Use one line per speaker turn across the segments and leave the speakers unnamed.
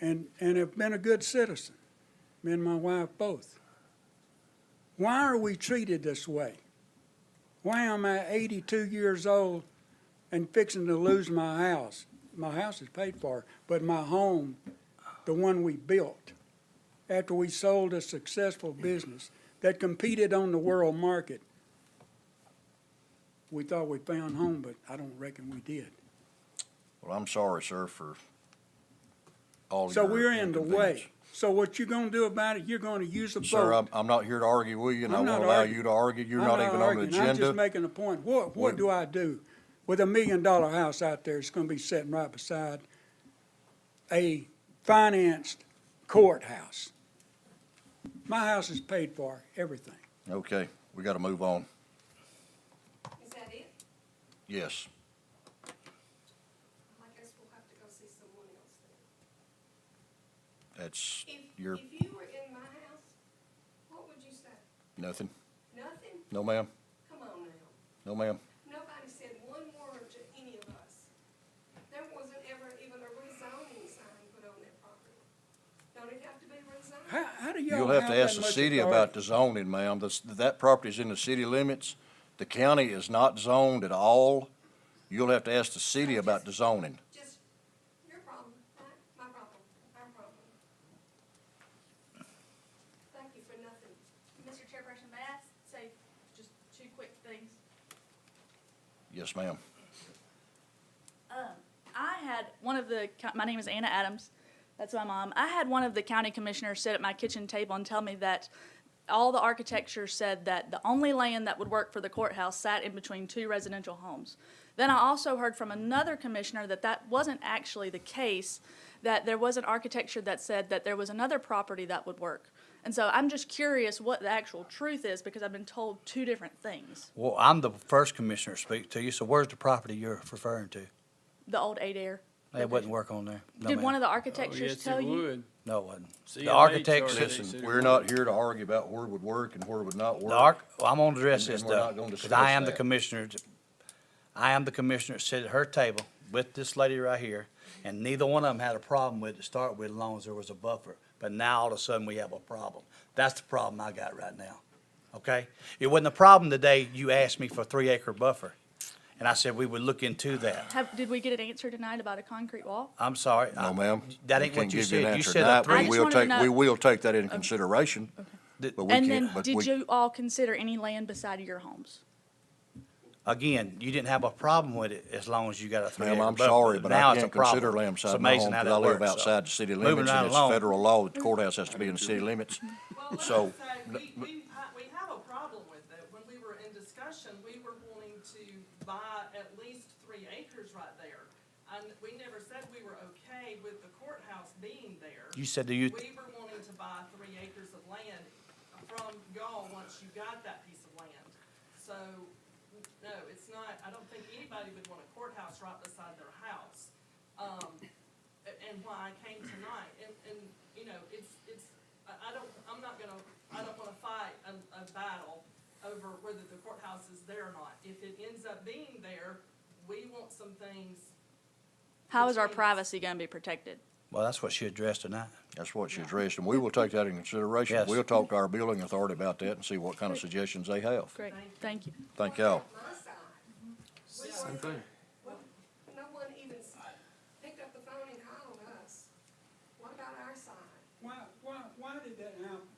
and, and have been a good citizen, me and my wife both. Why are we treated this way? Why am I 82 years old and fixing to lose my house? My house is paid for, but my home, the one we built, after we sold a successful business that competed on the world market, we thought we found home, but I don't reckon we did.
Well, I'm sorry, sir, for all
So
your
we're in the way.
inconvenience.
So what you gonna do about it, you're gonna use a
Sir, I'm,
vote.
I'm not here to argue with you, and I
I'm
won't
not
allow
arguing.
you to argue. You're
I'm
not even on the
arguing. I'm just
agenda.
making a point. What, what
What-
do I do with a million dollar house out there that's gonna be sitting right beside a financed courthouse? My house is paid for, everything.
Okay, we gotta move on.
Is that it?
Yes.
I guess we'll have to go see someone else then.
That's
If,
your,
if you were in my house, what would you say?
nothing.
Nothing?
No, ma'am.
Come on now.
No, ma'am.
Nobody said one word to any of us. There wasn't ever even a rezoning sign put on that property. Don't it have to be rezoned?
How, how do y'all
You'll have to
that
ask the
much
city
authority?
about the zoning, ma'am. That's, that property's in the city limits. The county is not zoned at all. You'll have to ask the city about the zoning.
Just your problem, not my problem, our problem. Thank you for nothing.
Mr. Chairperson, may I say just two quick things?
Yes, ma'am.
Um, I had one of the, co- my name is Anna Adams, that's my mom. I had one of the county commissioners sit at my kitchen table and tell me that all the architecture said that the only land that would work for the courthouse sat in between two residential homes. Then I also heard from another commissioner that that wasn't actually the case, that there was an architecture that said that there was another property that would work. And so I'm just curious what the actual truth is, because I've been told two different things.
Well, I'm the first commissioner to speak to you, so where's the property you're referring to?
The old Adair.
It wouldn't work on there. No,
Did
ma'am.
one of the
Oh,
architectures
yes,
tell
it
you?
would.
No, it wasn't.
CLH
The architects,
already
listen,
said-
Listen, we're not here to argue about where it would work and where it would not work.
the arch, well, I'm gonna address
And-
this
and we're
though,
not gonna
because
discuss
I am the
that.
commissioner. t- I am the commissioner that sit at her table with this lady right here, and neither one of them had a problem with it to start with, as long as there was a buffer. But now all of a sudden, we have a problem. That's the problem I got right now, okay? It wasn't a problem today, you asked me for a three acre buffer, and I said we would look into that.
Have, did we get an answer tonight about a concrete wall?
I'm sorry. I-
No, ma'am.
That
We
ain't
can't
what
give
you
an
said. You
answer
said
tonight,
a
but
I
three.
just
we'll
wanted to
take-
know-
We will take that into consideration,
Th-
but we
And
can't,
then,
but
did
we,
you all consider any land beside of your homes?
Again, you didn't have a problem with it as long as you got a three acre
ma'am, I'm
buffer.
sorry, but
Now
I
it's a
can't consider
problem.
land
It's
side my home,
amazing how
because I
that
live
works, so.
outside the city
Moving
limits,
right
and it's
along.
federal law, the courthouse has to be in the city limits.
Well, let's
So,
say, we, we, ha- we have a problem with it. When we were in discussion, we were wanting to buy at least three acres right there. And we never said we were okay with the courthouse being there.
You said that
We
you,
were wanting to buy three acres of land from y'all once you got that piece of land. So, no, it's not, I don't think anybody would want a courthouse right beside their house. Um, a- and why I came tonight, and, and, you know, it's, it's, I, I don't, I'm not gonna, I don't wanna fight a, a battle over whether the courthouse is there or not. If it ends up being there, we want some things
How is our
Between us.
privacy gonna be protected?
well, that's what she addressed tonight.
that's what she addressed, and we will take that into consideration.
Yes.
We'll talk to our building authority about that and see what kind of suggestions they have.
Great, thank you.
Thank y'all.
My side. We
Same
weren't-
thing.
Well, no one even s- picked up the phone and called us. What about our side?
Why, why, why did that happen?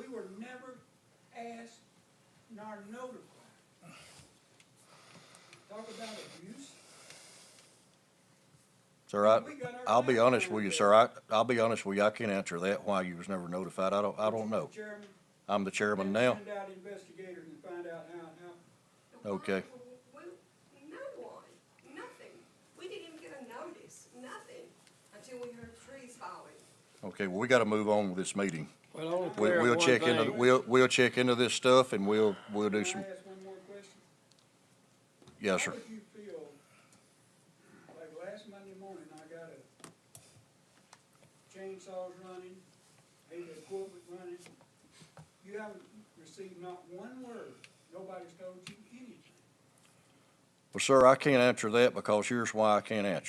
We were never asked nor notified. Talk about abuse.
Sir, I,
We got our
I'll be
back
honest
on
with you,
it.
sir, I, I'll be honest with you, I can't answer that, why you was never notified, I don't, I don't know.
Chairman,
I'm the chairman now.
Send out investigators and find out how, how.
And why
Okay.
were We, no one, nothing. We didn't even get a notice, nothing, until we heard trees falling.
Okay, well, we gotta move on with this meeting.
Well, I want to
We,
clear up
we'll
one
check into,
thing.
we'll, we'll check into this stuff and we'll, we'll do
Can
some,
I ask one more question?
yes, sir.
How did you feel, like last Monday morning, I got a chainsaws running, heavy equipment running. You haven't received not one word, nobody's told you anything.
Well, sir, I can't answer that because here's why I can't answer.